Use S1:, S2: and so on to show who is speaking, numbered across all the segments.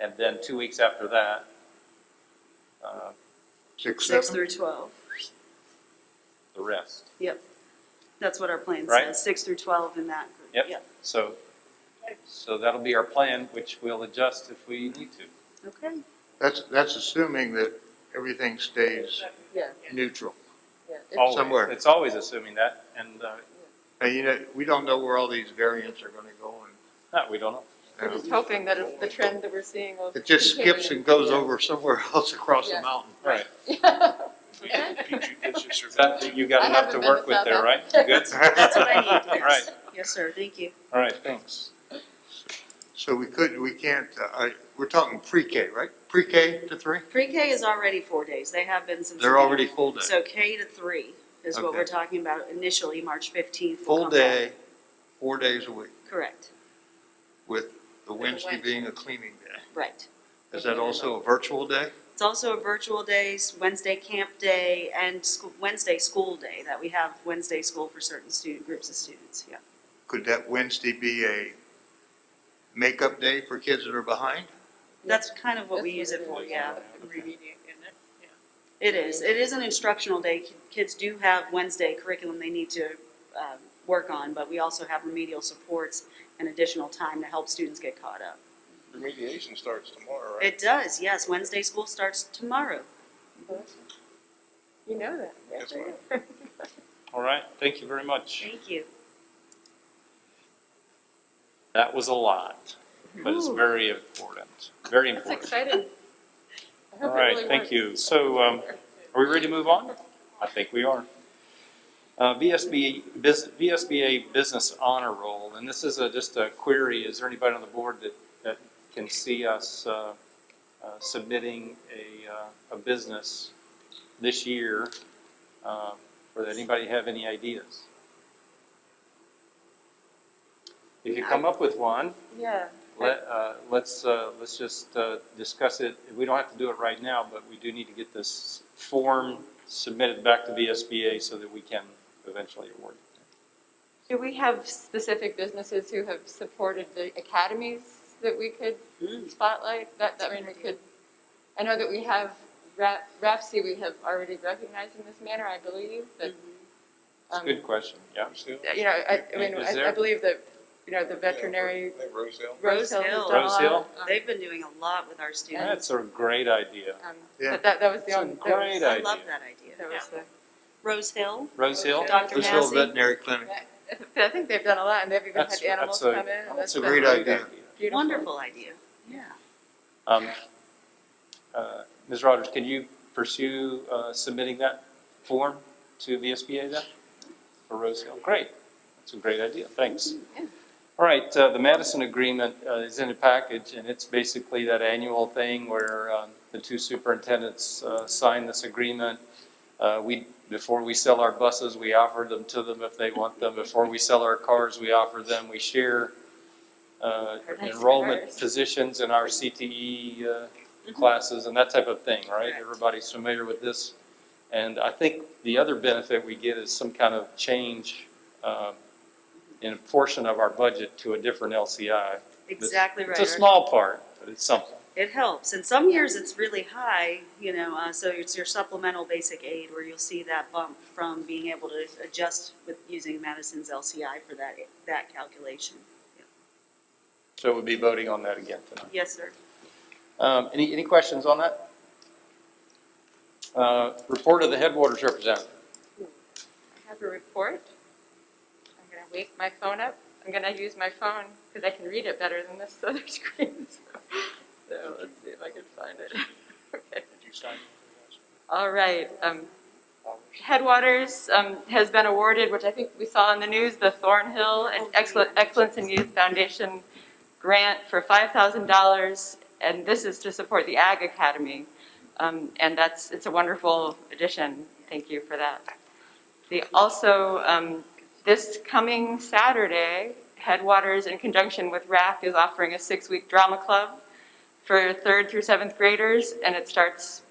S1: And then two weeks after that, uh,
S2: Six,
S3: six
S2: seven?
S3: through twelve.
S1: the rest.
S3: That's what our plan
S1: Right.
S3: says, six through twelve in that group.
S1: Yep. So, so that'll be our plan, which we'll adjust if we need to.
S3: Okay,
S2: That's, that's assuming that everything stays
S4: Yeah,
S2: neutral.
S4: yeah.
S1: Always.
S2: Somewhere.
S1: It's always assuming that, and, uh,
S2: Now, you know, we don't know where all these variants are gonna go
S1: no, we don't know.
S4: We're
S2: and,
S4: just
S2: you know,
S4: hoping that if the trend that we're seeing will.
S2: it just skips and goes over somewhere else across the
S4: Yeah.
S2: mountain.
S1: Right.
S4: over.
S1: That, you got
S4: I
S1: enough to
S4: haven't been
S1: work
S4: to
S1: with
S4: South
S1: there, right? You
S4: Africa.
S1: Good?
S3: that's what I need,
S1: All
S3: yes.
S1: right,
S3: Yes, sir, thank you.
S1: all right, thanks.
S2: So we could, we can't, uh, I, we're talking pre-K, right? Pre-K to three?
S3: Pre-K is already four days, they have been since. the
S2: They're already full day.
S3: beginning. So K to three is what
S2: Okay.
S3: we're talking about initially, March fifteenth.
S2: Full day, four days a week,
S3: Correct,
S2: with the Wednesday
S4: Wednesday.
S2: being a cleaning day.
S3: right.
S2: Is that also a virtual day?
S3: It's also a virtual days, Wednesday camp day, and school, Wednesday school day, that we have Wednesday school for certain student, groups of students, yeah.
S2: Could that Wednesday be a makeup day for kids that are behind?
S3: That's kind of what we use it for, yeah.
S4: Reading
S3: It is, it is an instructional day, Ki- kids do have Wednesday curriculum they need to, um, work on, but we also have remedial supports and additional time to help students get caught up.
S5: Remediation starts tomorrow, right?
S3: It does, yes, Wednesday school starts tomorrow.
S4: it. You know that.
S5: That's right.
S1: All right, thank you very much.
S3: Thank you.
S1: That was a lot, but it's
S4: Ooh.
S1: very important, very
S4: That's
S1: important.
S4: exciting. I hope
S1: All
S4: it
S1: right,
S4: really
S1: thank
S4: works.
S1: you. So, um, are we ready to move on? I think we are. Uh, VSBA, bus- VSBA Business Honor Roll, and this is a, just a query. Is there anybody on the board that, that can see us, uh, uh, submitting a, uh, a business this year? Uh, or that anybody have any ideas? If you come up with one,
S4: Yeah.
S1: let, uh, let's, uh, let's just, uh, discuss it. We don't have to do it right now, but we do need to get this form submitted back to VSBA so that we can eventually award it.
S4: Do we have specific businesses who have supported the academies that we could
S3: Hmm. Mm.
S4: spotlight? That, that, I mean, we could, I know that we have, Ra- RAPSI, we have already recognized in this manner, I believe, that.
S3: Mm-hmm.
S1: It's a
S4: um,
S1: good question, yeah.
S5: Rosedale?
S4: You know, I, I mean,
S1: Is
S4: I- I
S1: there-
S4: believe that, you know, the veterinary,
S5: Yeah, Rosedale.
S4: Rose Hill
S3: Rose
S4: has done a
S1: Hill.
S4: lot.
S1: Rose
S4: Um,
S3: They've been doing a lot with our students.
S1: That's a great idea.
S4: um,
S2: Yeah.
S4: But that, that was the
S1: It's a
S4: only, that
S1: great
S4: was,
S3: I love
S1: idea.
S3: that
S4: that
S3: idea.
S4: was the.
S3: Rose Hill,
S1: Rose Hill?
S3: Dr.
S2: This little
S3: Massey,
S2: veterinary clinic,
S4: I think they've done a lot, and they've even
S1: That's-
S4: had animals
S1: that's
S4: come
S1: a-
S4: in.
S1: That's a
S4: been
S2: great
S1: great
S2: idea.
S1: idea.
S4: beautiful.
S3: wonderful idea, yeah.
S1: Um, uh, Ms. Rogers, can you pursue, uh, submitting that form to VSBA then? For Rose Hill, great. That's a great idea, thanks.
S4: Yeah.
S1: All right, uh, the Madison Agreement uh, is in a package, and it's basically that annual thing where um, the two superintendents uh, sign this agreement. Uh, We, before we sell our buses, we offer them to them if they want them. Before we sell our cars, we offer them. We share uh,
S4: Nice
S1: enrollment
S4: cars.
S1: positions in our CTE uh, classes and that type of thing, right?
S3: Mm-hmm. Correct.
S1: Everybody's familiar with this. And I think the other benefit we get is some kind of change um, in a portion of our budget to a different LCI.
S3: Exactly right.
S1: It's a small part, but it's something.
S3: It helps, and some years it's really high, you know, uh, so it's your supplemental basic aid where you'll see that bump from being able to adjust with using Madison's LCI for that, that calculation.
S1: So we'll be voting on that again tonight.
S3: Yes, sir.
S1: Um, Any, any questions on that? Uh, Report of the headwaters representative.
S4: I have a report. I'm gonna wake my phone up. I'm gonna use my phone because I can read it better than this other screen. So, so let's see if I can find it. okay.
S5: Did you sign?
S4: All right. Um, Headwaters um, has been awarded, which I think we saw in the news, the Thornhill Excel- Excellence in Youth Foundation grant for $5,000, and this is to support the Ag Academy. Um, And that's, it's a wonderful addition. Thank you for that. They also, um, this coming Saturday, Headwaters, in conjunction with RAF, is offering a six-week drama club for third through seventh graders, and it starts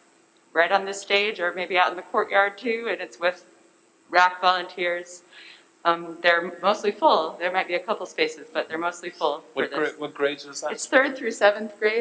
S4: right on this stage or maybe out in the courtyard too, and it's with RAC volunteers. Um, they're mostly full. There might be a couple spaces, but they're mostly full for
S1: What
S4: this.
S1: grade, what grades was that?
S4: It's third through seventh grade.